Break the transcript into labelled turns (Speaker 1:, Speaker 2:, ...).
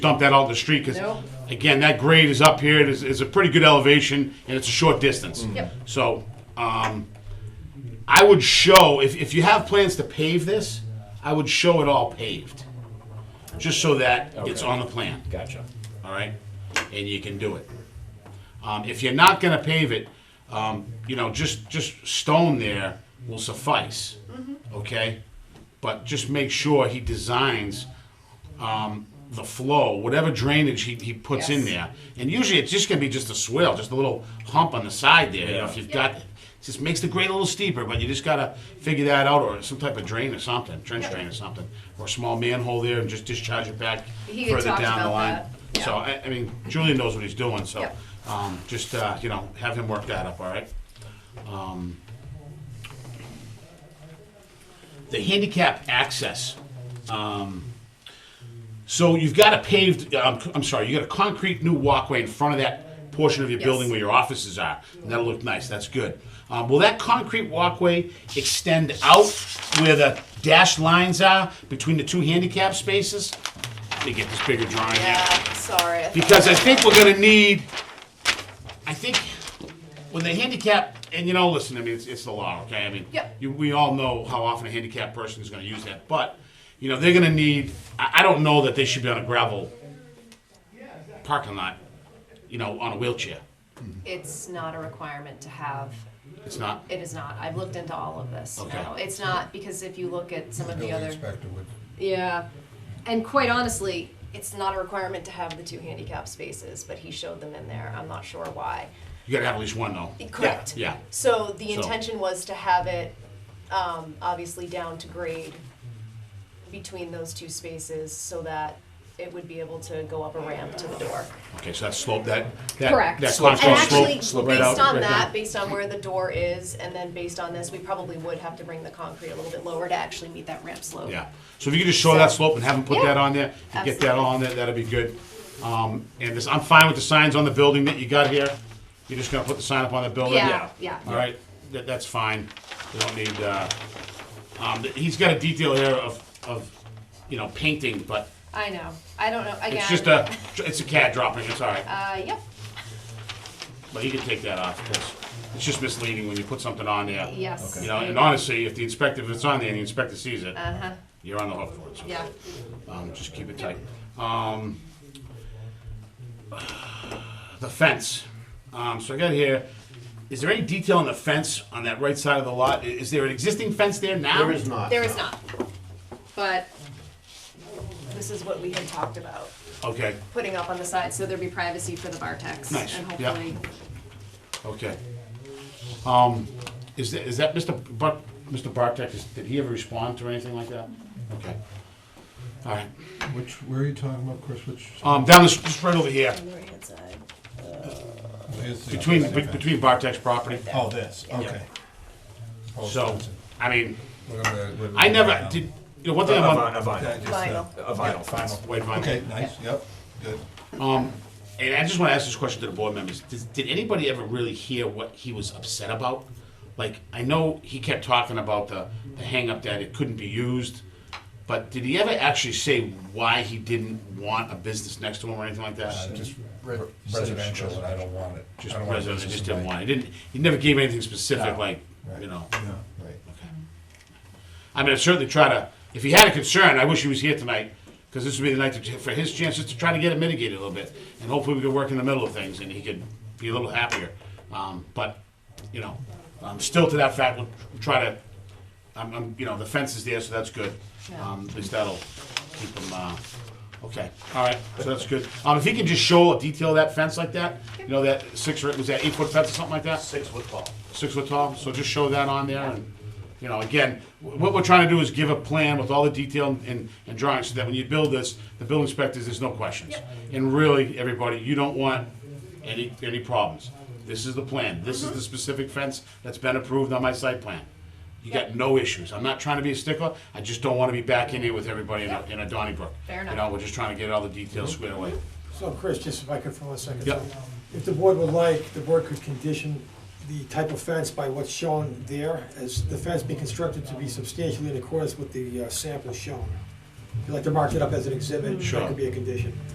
Speaker 1: dump that out in the street, because,
Speaker 2: Nope.
Speaker 1: again, that grade is up here, it is, it's a pretty good elevation, and it's a short distance.
Speaker 2: Mm-hmm. Yep.
Speaker 1: So, um, I would show, if, if you have plans to pave this, I would show it all paved. Just so that it's
Speaker 3: Okay.
Speaker 1: on the plan,
Speaker 3: Gotcha.
Speaker 1: all right? And you can do it. Um, if you're not gonna pave it, um, you know, just, just stone there will suffice,
Speaker 2: Mm-hmm.
Speaker 1: okay? But just make sure he designs, um, the flow, whatever drainage he, he puts in
Speaker 2: Yes.
Speaker 1: there. And usually it's just gonna be just a swell, just a little hump on the side there, you know, if you've got, it just makes the grade a little steeper, but you just gotta figure that out, or some type of drain or something, trench drain or something, or a small manhole there and just discharge it back
Speaker 2: He had
Speaker 1: further
Speaker 2: talked
Speaker 1: down the
Speaker 2: about
Speaker 1: line.
Speaker 2: that, yeah.
Speaker 1: So, I, I mean, Julian knows what he's doing, so,
Speaker 2: Yep.
Speaker 1: um, just, uh, you know, have him work that up, all right? Um, The handicap access, um, so you've got a paved, um, I'm sorry, you got a concrete new walkway in front of that portion of your
Speaker 2: Yes.
Speaker 1: building where your offices are. And that'll look nice, that's good. Um, will that concrete walkway extend out where the dashed lines are between the two handicap spaces? Let me get this bigger drawing here.
Speaker 2: Yeah, sorry. I thought-
Speaker 1: Because I think we're gonna need, I think, when the handicap, and you know, listen, I mean, it's, it's the law, okay? I mean,
Speaker 2: Yep.
Speaker 1: you, we all know how often a handicapped person is gonna use that, but, you know, they're gonna need, I, I don't know that they should be on a gravel parking lot, you know, on a wheelchair.
Speaker 2: It's not a requirement to have,
Speaker 1: It's not,
Speaker 2: it is not. I've looked into all of this.
Speaker 1: Okay.
Speaker 2: No, It's not, because if you look at some of the
Speaker 4: Building
Speaker 2: other,
Speaker 4: inspector would,
Speaker 2: yeah. And quite honestly, it's not a requirement to have the two handicap spaces, but he showed them in there. I'm not sure why.
Speaker 1: you gotta have at least one though.
Speaker 2: Correct.
Speaker 1: Yeah,
Speaker 2: So the
Speaker 1: So-
Speaker 2: intention was to have it, um, obviously down to grade between those two spaces so that it would be able to go up a ramp to the door.
Speaker 1: yeah. okay, so that slope, that, that,
Speaker 2: Correct.
Speaker 1: that
Speaker 2: And
Speaker 1: concrete
Speaker 2: actually,
Speaker 1: slope,
Speaker 2: based
Speaker 1: slope right out,
Speaker 2: on
Speaker 1: right
Speaker 2: that,
Speaker 1: down.
Speaker 2: based on where the door is, and then based on this, we probably would have to bring the concrete a little bit lower to actually meet that ramp slope.
Speaker 1: Yeah, so if you could just show that slope and have them put
Speaker 2: Yeah.
Speaker 1: that on there, and get that
Speaker 2: Absolutely.
Speaker 1: on there, that'd be good. Um, and this, I'm fine with the signs on the building that you got here, you're just gonna put the sign up on the building?
Speaker 2: Yeah, yeah.
Speaker 1: All right, that, that's fine, you don't need, uh, um, he's got a detail here of, of, you know, painting, but
Speaker 2: I know, I don't know, again.
Speaker 1: it's just a, it's a cat dropping, it's all right.
Speaker 2: Uh, yep,
Speaker 1: But you can take that off, because it's just misleading when you put something on there.
Speaker 2: yes.
Speaker 1: You know, and honestly, if the inspector, if it's on there and the inspector sees it,
Speaker 2: Uh-huh,
Speaker 1: you're on the hook for it, so.
Speaker 2: yeah,
Speaker 1: Um, just keep it tight. Um, the fence. Um, so I got here. Is there any detail on the fence on that right side of the lot? I- Is there an existing fence there now?
Speaker 5: There is not.
Speaker 2: there
Speaker 5: no.
Speaker 2: is not, but this is what we had talked about,
Speaker 1: Okay.
Speaker 2: putting up on the side, so there'd be privacy for the Bartex.
Speaker 1: Nice,
Speaker 2: And
Speaker 1: yeah.
Speaker 2: hopefully,
Speaker 1: Okay. Um, is that, is that Mr. But Mr. Bartek? Is, did he ever respond to anything like that? Okay. All right.
Speaker 4: which, where are you talking about, Chris, which?
Speaker 1: Um, down this, just right over here,
Speaker 4: is the
Speaker 1: between
Speaker 4: opposite fence?
Speaker 1: between Bartek's property.
Speaker 4: Oh, this, okay. Post
Speaker 1: So,
Speaker 4: fence.
Speaker 1: I mean,
Speaker 4: We're gonna- we're
Speaker 1: I never
Speaker 4: gonna-
Speaker 1: did. You know, one
Speaker 3: A
Speaker 1: thing
Speaker 3: vinyl,
Speaker 1: about
Speaker 3: a
Speaker 4: Um, Yeah,
Speaker 3: vinyl,
Speaker 4: just, uh,
Speaker 2: Vinyl.
Speaker 3: a vinyl fence.
Speaker 4: Vinyl.
Speaker 1: wait, Von-
Speaker 4: Okay, nice, yep, good.
Speaker 1: Um, and I just want to ask this question to the board members: did, did anybody ever really hear what he was upset about? Like, I know he kept talking about the the hang up that it couldn't be used, but did he ever actually say why he didn't want a business next to him or anything like that?
Speaker 4: Uh, Just re- residential, and I don't want it. I
Speaker 1: just
Speaker 4: don't want
Speaker 1: residents
Speaker 4: business
Speaker 1: just
Speaker 4: in
Speaker 1: didn't
Speaker 4: my-
Speaker 1: want. It. He didn't. He never gave anything specific,
Speaker 3: No.
Speaker 1: like you know.
Speaker 4: No, right.
Speaker 1: I mean, I certainly try to. If he had a concern, I wish he was here tonight because this would be the night to, for his chances to try to get it mitigated a little bit, and hopefully we could work in the middle of things and he could be a little happier. Um, but you know, um, still to that fact, we'll try to. I'm, I'm, you know, the fence is there, so that's good. Um, at least that'll keep him. Uh, okay, all right, so that's good. Um, if he can just show a detail of that fence like that, you know, that six or was that eight foot fence or something like that
Speaker 5: Six foot tall.
Speaker 1: six foot tall, so just show that on there, and, you know, again, wh- what we're trying to do is give a plan with all the detail and, and drawings, so that when you build this, the building inspectors, there's no questions. And really, everybody, you don't want any, any problems. This is the plan, this is the specific fence that's been approved on my site plan. You got no issues, I'm not trying to be a stickler, I just don't wanna be back in here with everybody in a, in a Donnybrook.
Speaker 2: Fair
Speaker 1: You know,
Speaker 2: enough.
Speaker 1: we're just trying to get all the details squared away.
Speaker 6: So Chris, just if I could for one second. um,
Speaker 1: Yep.
Speaker 6: If the board would like, the board could condition the type of fence by what's shown there, as the fence be constructed to be substantially in accordance with the uh, sample shown. If you'd like to mark it up as an exhibit,
Speaker 1: Sure.
Speaker 6: that could be a condition.